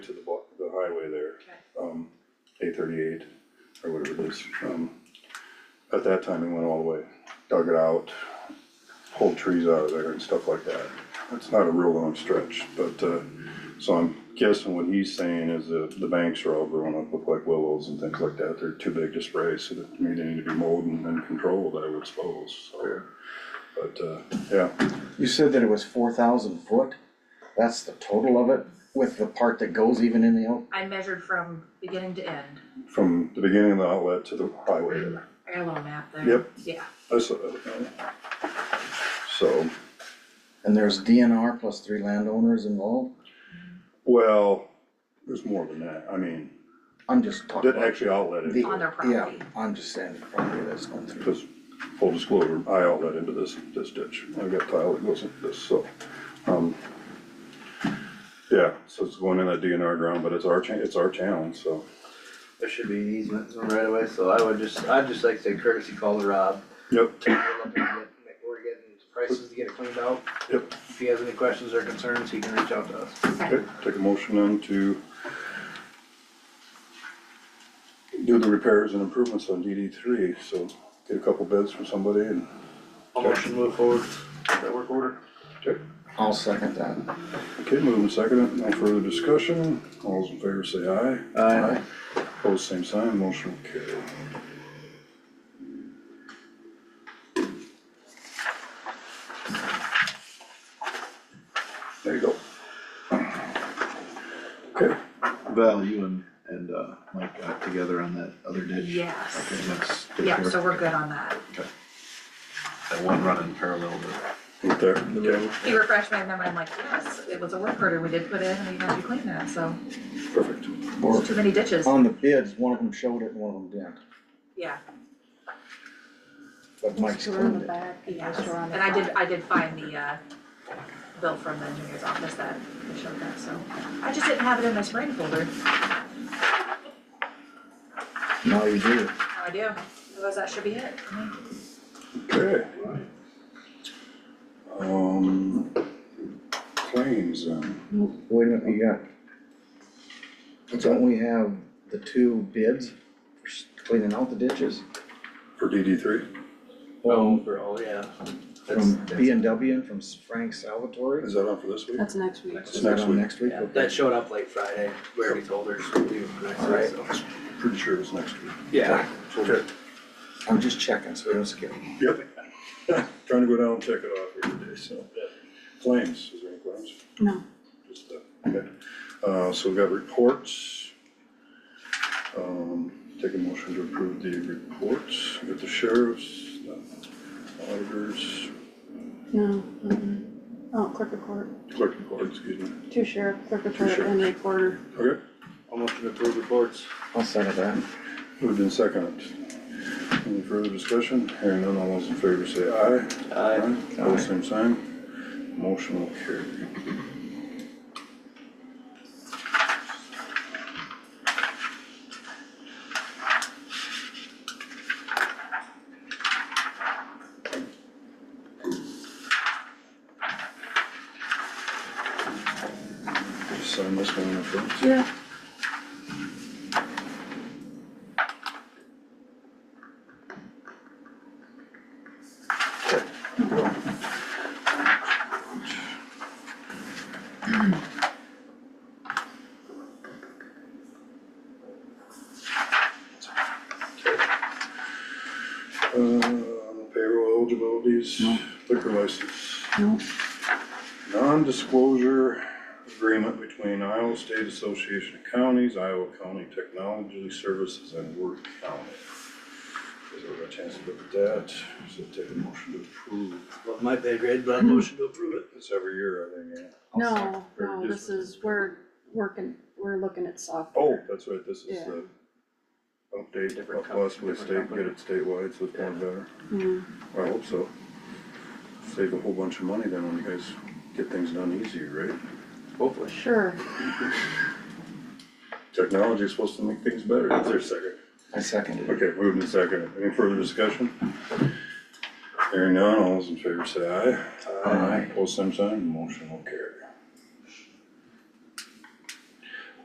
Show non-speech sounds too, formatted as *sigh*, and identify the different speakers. Speaker 1: to the block, the highway there. Um, eight thirty-eight or whatever it is, um, at that time, it went all the way, dug it out, pulled trees out of there and stuff like that. It's not a real long stretch, but, uh, so I'm guessing what he's saying is that the banks are all grown up, look like willows and things like that, they're too big to spray, so that, I mean, they need to be mowed and and controlled, I would suppose, so. But, uh, yeah,
Speaker 2: You said that it was four thousand foot? That's the total of it with the part that goes even in the, out-
Speaker 3: I measured from beginning to end.
Speaker 1: from the beginning of the outlet to the highway there.
Speaker 3: I got a little map there.
Speaker 1: Yep.
Speaker 3: Yeah,
Speaker 1: That's, uh, so,
Speaker 2: and there's DNR plus three landowners involved?
Speaker 1: well, there's more than that, I mean,
Speaker 2: I'm just talking
Speaker 1: that
Speaker 2: about.
Speaker 1: actually outlet
Speaker 2: the-
Speaker 1: it,
Speaker 3: On their
Speaker 2: Yeah,
Speaker 3: property.
Speaker 2: I'm just saying the property that's going through.
Speaker 1: because, full disclosure, I outlet into this, this ditch, I've got tile that goes into this, so, um, yeah, so it's going in that DNR ground, but it's our cha- it's our town, so,
Speaker 4: There should be an easement zone right away, so I would just, I'd just like to say courtesy call to Rob.
Speaker 1: yep,
Speaker 4: take a look at it, make- We're getting prices to get it cleaned out.
Speaker 1: Yep.
Speaker 4: If he has any questions or concerns, he can reach out to us.
Speaker 1: okay, take a motion then to do the repairs and improvements on DD three, so get a couple bids from somebody and
Speaker 4: I'll motion to move forward, with that work order.
Speaker 2: I'll second that.
Speaker 1: Okay, moving second, no further discussion, all those in favor say aye.
Speaker 4: Aye.
Speaker 1: Opposed, same sign, motion will carry. There you go. Okay,
Speaker 5: Val, you and, and, uh, Mike got together on that other ditch? Okay,
Speaker 3: Yes.
Speaker 5: let's take care
Speaker 3: Yep,
Speaker 5: of
Speaker 3: so we're good on that.
Speaker 5: that one running parallel to.
Speaker 1: right there, okay,
Speaker 3: He refreshed my memory, I'm like, yes, it was a work order we did put in and you had to clean that, so,
Speaker 1: perfect.
Speaker 2: Or
Speaker 3: too many ditches.
Speaker 2: on the bids, one of them showed it and one of them didn't,
Speaker 3: Yeah,
Speaker 2: but Mike's
Speaker 6: Store on
Speaker 2: cleaned
Speaker 6: the
Speaker 2: it.
Speaker 6: back,
Speaker 3: yeah.
Speaker 6: yeah, store on the
Speaker 3: And I did,
Speaker 6: front.
Speaker 3: I did find the, uh, bill from the engineer's office that showed that, so. I just didn't have it in my spring folder.
Speaker 2: Now you do.
Speaker 3: Now I do. Otherwise, that should be it. for me.
Speaker 1: Okay. Um, claims, um,
Speaker 2: Wait a minute, you got. Don't we have the two bids for s- cleaning out the ditches
Speaker 1: for DD three,
Speaker 4: Well, overall, yeah. That's-
Speaker 2: from B and W and from S- Frank Salvatore?
Speaker 1: is that on for this week?
Speaker 6: That's next week.
Speaker 1: It's
Speaker 2: Is that
Speaker 1: next
Speaker 2: on
Speaker 1: week.
Speaker 2: next week?
Speaker 4: yeah,
Speaker 2: Okay.
Speaker 4: That showed up late Friday, we already told her, so we'll do it next week, so.
Speaker 1: Pretty sure it's next week.
Speaker 4: Yeah.
Speaker 1: Okay.
Speaker 2: I'm just checking, so we don't skip.
Speaker 1: Yep. *laughs* Trying to go down and check it off here today, so. Claims, is there any claims?
Speaker 6: No.
Speaker 1: Just that, okay. Uh, so we've got reports. Um, take a motion to approve the reports, we got the sheriffs, the auditors,
Speaker 6: No. mm-mm. Oh, clerk of court,
Speaker 1: clerk of court, excuse me.
Speaker 6: two sheriff, clerk of
Speaker 1: Two
Speaker 6: court,
Speaker 1: sheriff.
Speaker 6: and a quarter.
Speaker 1: Okay,
Speaker 4: I'll motion to approve reports.
Speaker 2: I'll second that.
Speaker 1: moved in second. Any further discussion? Hearing none, all those in favor say aye.
Speaker 4: Aye.
Speaker 1: Pose same sign. Motion will carry. Sign this one in front.
Speaker 6: Yeah.
Speaker 1: Uh, on the payroll eligibilities, liquor license.
Speaker 6: No.
Speaker 1: Non-disclosure agreement between Iowa State Association of Counties, Iowa County Technology Services, and Work County. Is there a chance to look at that? So take a motion to approve.
Speaker 4: Love my pay grade, but I'll motion to approve it.
Speaker 1: It's every year, I think, yeah.
Speaker 6: No,
Speaker 1: Or
Speaker 6: no,
Speaker 1: just-
Speaker 6: this is, we're working, we're looking at
Speaker 1: Oh,
Speaker 6: software.
Speaker 1: that's right, this is
Speaker 6: Yeah.
Speaker 1: the update,
Speaker 4: Different com-
Speaker 1: possibly
Speaker 4: different
Speaker 1: state, get
Speaker 4: company.
Speaker 1: it statewide, so it's going better.
Speaker 6: Mm.
Speaker 1: I hope so. Save a whole bunch of money then when you guys get things done easier, right? Oh.
Speaker 4: Hopefully.
Speaker 6: Sure,
Speaker 1: Technology is supposed to make things better. Is there a second?
Speaker 2: I seconded it.
Speaker 1: Okay, moved and second. Any further discussion? Hearing none, all those in favor say aye. Aye. Post same sign, motion will carry.